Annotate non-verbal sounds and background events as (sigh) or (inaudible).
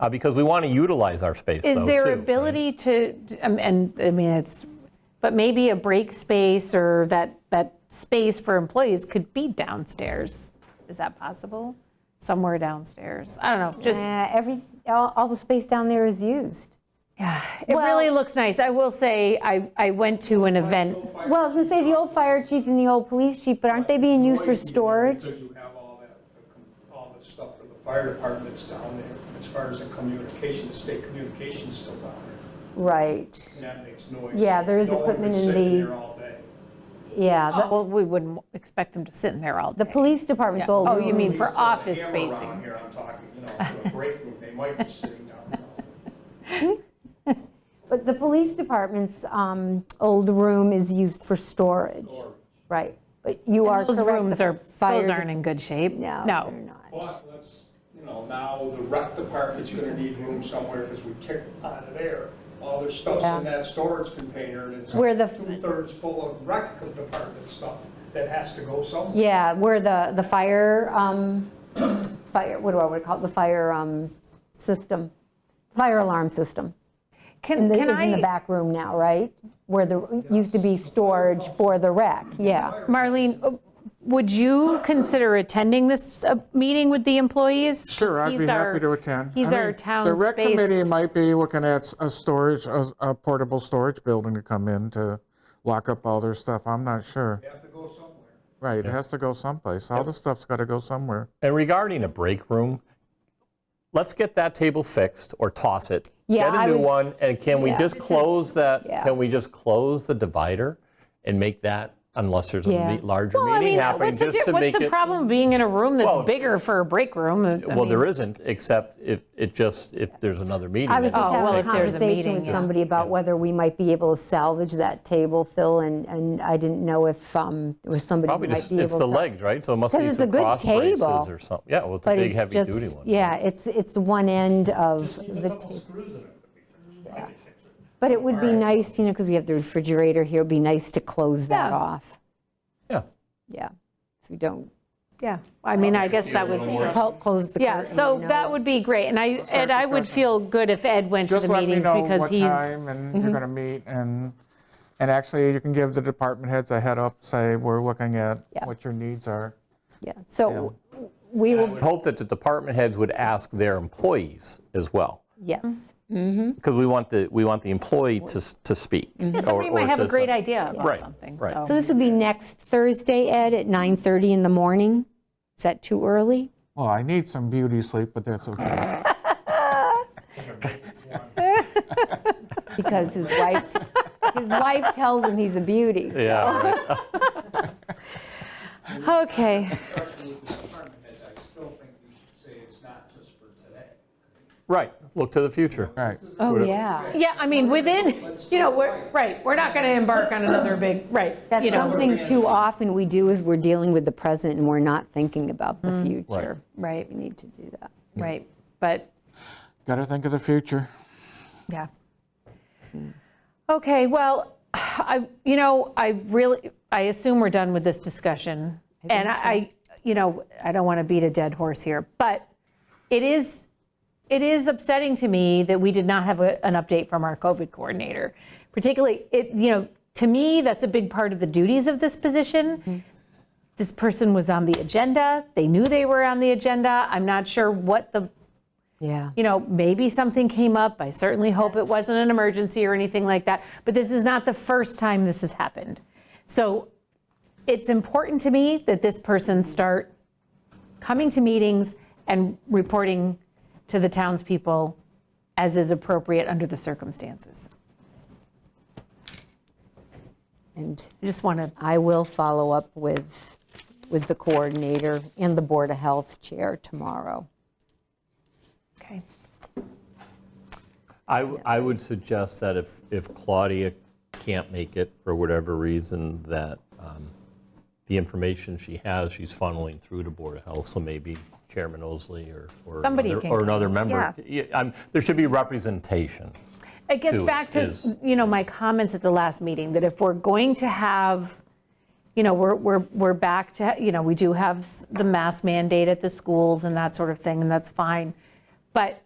uh, because we want to utilize our space, Is though, there too. ability to, um, and I mean, it's, but maybe a break space or that, that space for employees could be downstairs. Is that possible? Somewhere downstairs? I don't know, just, Uh, Every, all all the space down there is used. it really well- looks nice. I will say, I, I went to an event. Well, I was going to say, the old fire chief and the old police chief, but aren't they being used for Noisy, you know, storage? Because you have all that, the com- all the stuff for the fire departments down there, as far as the communication, the state communication's still down there, Right, and that makes noise. Yeah, there is No one equipment could in sit the- there all day. yeah. the- Well, we wouldn't expect them to sit in there all The day. police department's Yeah. old. Oh, you mean rooms. for Still have a office hammer around spacing. here, I'm talking, you know, for a break room, they might be sitting down there all day. But the police department's um, old room is used for storage. Right, but you are correct. Those rooms the are, fire those de- aren't in good shape. No, they're not. But let's, you know, now the rec department's gonna need room somewhere because we kicked out of there. All their stuff's Yeah. in that storage container and it's Where the- two-thirds full of rec department stuff that has to go somewhere. Yeah, where the, the fire, um, fire, what do I want to call it, the fire um, system, fire alarm system. Can, And the- can Is in the I, back room now, right? Where the, used to be storage for the rec, yeah. Marlene, uh, would you consider attending this uh, meeting with the employees? 'Cause Sure, I'd be he's our- happy to attend. I He's mean, our town The rec committee space- might be looking at a storage, a a portable storage building to come in to lock up all their stuff. I'm not sure. They have to go somewhere. Right, it has to go someplace. All the stuff's got to go somewhere. And regarding a break room, let's get that table fixed or toss it. Yeah, Get I a new was- one, and can we Yeah. just close that, yeah. can we just close the divider and make that, unless there's a Yeah. me- larger Well, I meeting mean, happening, what's the, just di- to what's make the it. problem being in a room Well, that's bigger for a break room? I Well, mean, there isn't, except if, it just, if there's another meeting. I was it just just having a takes Oh, if there's a place. conversation meeting, with yeah. somebody about whether we might be able to salvage that table, Phil, and, and I didn't know if um, it was somebody who Probably might just, be able to. it's the legs, right? So it must 'Cause be it's a some good cross braces table, or something. Yeah, well, it's a But big, it's heavy-duty just, one. yeah, it's, it's one end of the. ta- But it would be nice, you know, because we have the refrigerator here, it'd be nice to close that Yeah. off. Yeah. Yeah, so we don't, Yeah, I mean, I guess that was, help close the yeah, curtain. so you know. that would be great. And I, and I would feel good if Ed went to Just the let me meetings know because what he's, Mm-hmm. time and you're going to meet and, and actually you can give the department heads a head up, say, we're looking at Yeah. what your needs are. Yeah, so we I will, would hope that the department heads would ask their employees as well, Mm-hmm. yes, because we want the, we want the employee to, s- to speak. Yeah, somebody or- or might have a to- great idea about Right, something, right. so so. this would be next Thursday, Ed, at 9:30 in the morning? Is that too early? Well, I need some beauty sleep, but that's okay. Because his (laughs) wife, his wife tells him he's a beauty. so- Yeah, right. Okay, Especially with the department heads, I still think you should say it's not just for today. Right, look to the future. Right. Oh, yeah. yeah, I mean, within, you know, we're, right, we're not going to embark on another big, right, That's you know, something too often we do is we're dealing with the present and we're not thinking about Mm. the future. right, We need to do that. right, but, Got to think of the future. yeah. Okay, well, I, you know, I really, I assume we're done with this discussion. And I, you know, I don't want to beat a dead horse here, but it is, it is upsetting to me that we did not have a- an update from our COVID coordinator. Particularly, it, you know, to me, that's a big part of the duties of this position. This person was on the agenda, they knew they were on the agenda. I'm not sure what the Yeah. you know, maybe something came up. I certainly hope it wasn't an emergency or anything like that. But this is not the first time this has happened. So it's important to me that this person start coming to meetings and reporting to the townspeople as is appropriate under the circumstances. And I just want to, I will follow up with, with the coordinator and the Board of Health Chair tomorrow. okay. I, w- I would suggest that if, if Claudia can't make it for whatever reason, that um, the information she has, she's funneling through to Board of Health, so maybe Chairman Osley or, or Somebody another- can or come, another member. yeah. Yeah, I'm- There should be representation. It gets to it back to, is- you know, my comments at the last meeting, that if we're going to have, you know, we're, we're, we're back to, you know, we do have s- the mask mandate at the schools and that sort of thing, and that's fine. But